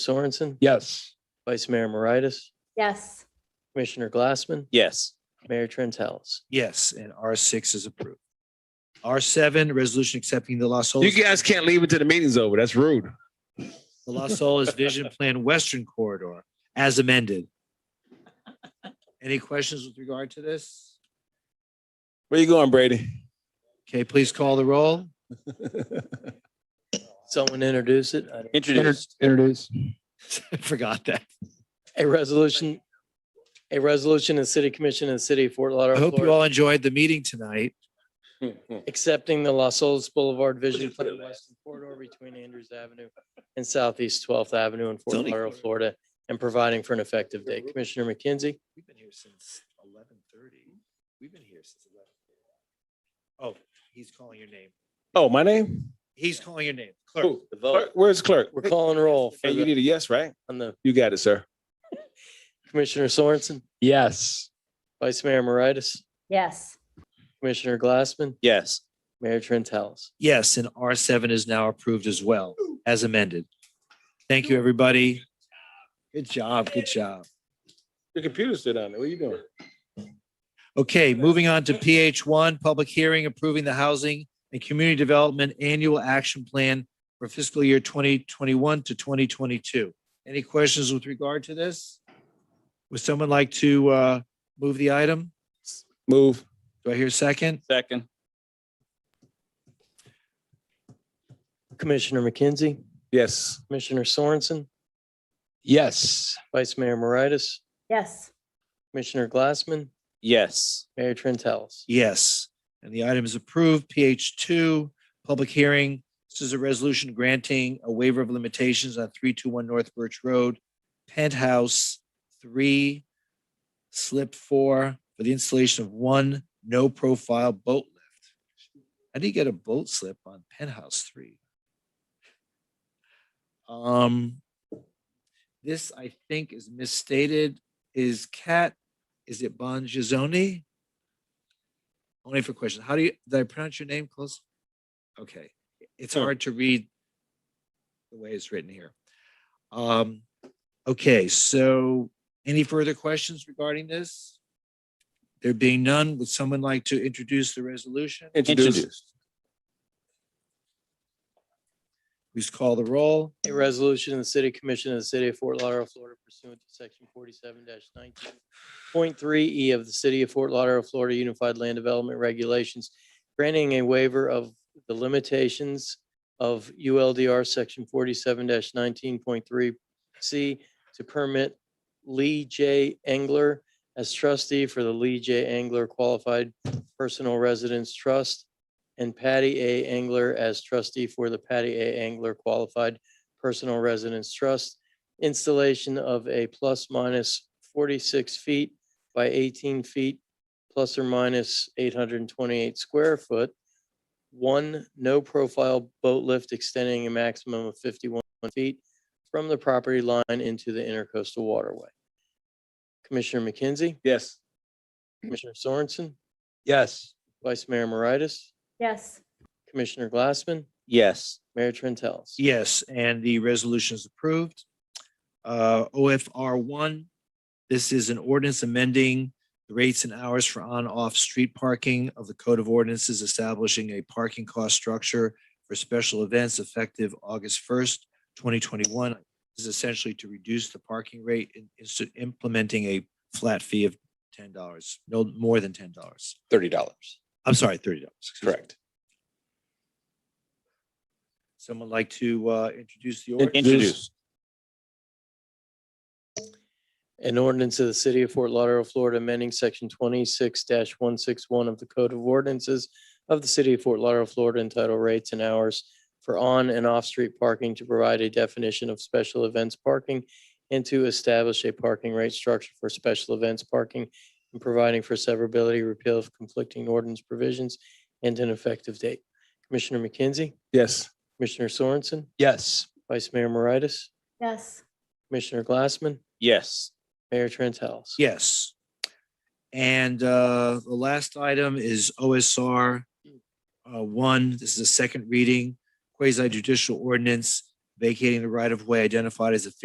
Sorensen, Yes. Vice Mayor Moritas, Yes. Commissioner Glassman, Yes. Mayor Trent Halls. Yes, and R six is approved. R seven, resolution accepting the Las You Olas, guys can't leave until the meeting's over. That's rude. the Las Olas Vision Plan Western Corridor as amended. Any questions with regard to this? Where you going, Brady? Okay, please call the roll. Someone introduce it. I don't- Introduced. Introduce. Forgot that. A resolution, a resolution of the City Commission of the City of Fort I Lauderdale, hope you Florida, all enjoyed the meeting tonight. accepting the Los Olas Boulevard Vision Plan Western Corridor between Andrews Avenue and Southeast 12th Avenue in Fort Zoning Lauderdale, corridor. Florida, and providing for an effective date. Commissioner McKenzie, We've been here since eleven thirty. We've been here since eleven. Oh, he's calling your name. Oh, my name? He's calling your name. Clerk. Who? Clerk? Where's clerk? we're calling roll for Hey, you the- need a yes, right? on the You got it, sir. Commissioner Sorensen, Yes. Vice Mayor Moritas, Yes. Commissioner Glassman, Yes. Mayor Trent Halls. Yes, and R seven is now approved as well, as amended. Thank you, everybody. Good job, good job. Your computer's still down there. What are you doing? Okay, moving on to PH one, public hearing approving the Housing and Community Development Annual Action Plan for fiscal year twenty twenty-one to twenty twenty-two. Any questions with regard to this? Would someone like to uh move the item? Move. Do I hear a second? Second. Commissioner McKenzie, Yes. Commissioner Sorensen, Yes. Vice Mayor Moritas, Yes. Commissioner Glassman, Yes. Mayor Trent Halls. Yes, and the item is approved. PH two, public hearing. This is a resolution granting a waiver of limitations on three two one North Birch Road, penthouse three, slip four, for the installation of one no profile boat lift. How do you get a boat slip on penthouse three? Um, this I think is misstated. Is Cat, is it Bongiorno? Only for questions. How do you, did I pronounce your name close? Okay, it's Sure. hard to read the way it's written here. Um, okay, so any further questions regarding this? There being none, would someone like to introduce the resolution? Introduced. Please call the roll. A resolution of the City Commission of the City of Fort Lauderdale, Florida pursuant to section forty-seven nineteen point three E of the City of Fort Lauderdale, Florida Unified Land Development Regulations, granting a waiver of the limitations of ULDR section forty-seven nineteen point three C to permit Lee J. Engler as trustee for the Lee J. Engler Qualified Personal Residence Trust and Patty A. Engler as trustee for the Patty A. Engler Qualified Personal Residence Trust, installation of a plus minus forty-six feet by eighteen feet, plus or minus eight hundred and twenty-eight square foot, one no-profile boat lift extending a maximum of fifty-one feet from the property line into the intercoastal waterway. Commissioner McKenzie, Yes. Commissioner Sorensen, Yes. Vice Mayor Moritas, Yes. Commissioner Glassman, Yes. Mayor Trentels. Yes, and the resolution is approved. Uh, OFR one, this is an ordinance amending the rates and hours for on-off street parking of the Code of Ordinances establishing a parking cost structure for special events effective August first, twenty twenty-one. This is essentially to reduce the parking rate and is to implementing a flat fee of ten dollars, no more than ten dollars. Thirty dollars. I'm sorry, thirty dollars. Correct. Someone like to uh, introduce the ordinance? Introduced. An ordinance of the city of Fort Lauderdale, Florida, amending section twenty-six one six one of the Code of Ordinances of the city of Fort Lauderdale, Florida, entitled Rates and Hours for On and Off-Street Parking to provide a definition of special events parking and to establish a parking rate structure for special events parking and providing for severability, repeal of conflicting ordinance provisions, and an effective date. Commissioner McKenzie, Yes. Commissioner Sorensen, Yes. Vice Mayor Moritas, Yes. Commissioner Glassman, Yes. Mayor Trent House. Yes. And uh, the last item is OSR uh, one. This is a second reading quasi judicial ordinance vacating the right of way identified as a